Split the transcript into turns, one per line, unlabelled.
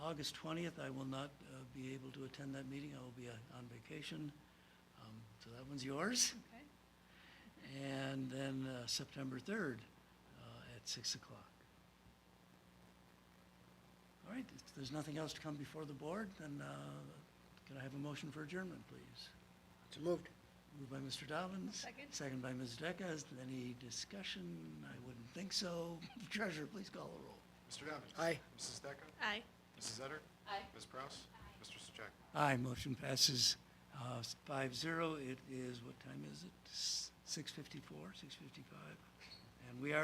August 20th, I will not uh, be able to attend that meeting. I will be uh, on vacation. Um, So that one's yours.
Okay.
And then uh, September 3rd uh, at 6 o'clock. All right, if there's nothing else to come before the board, then uh, can I have a motion for adjournment, please?
So moved.
Moved by Mr. Dobbins.
Second.
Second by Ms. Decker. Any discussion? I wouldn't think so. Treasurer, please call the roll.
Mr. Dobbins.
Aye.
Mrs. Decker.
Aye.
Mrs. Etter.
Aye.
Ms. Prowse. Mr. Sajak.
Aye, motion passes uh, five zero. It is, what time is it? S- 6:54, 6:55? And we are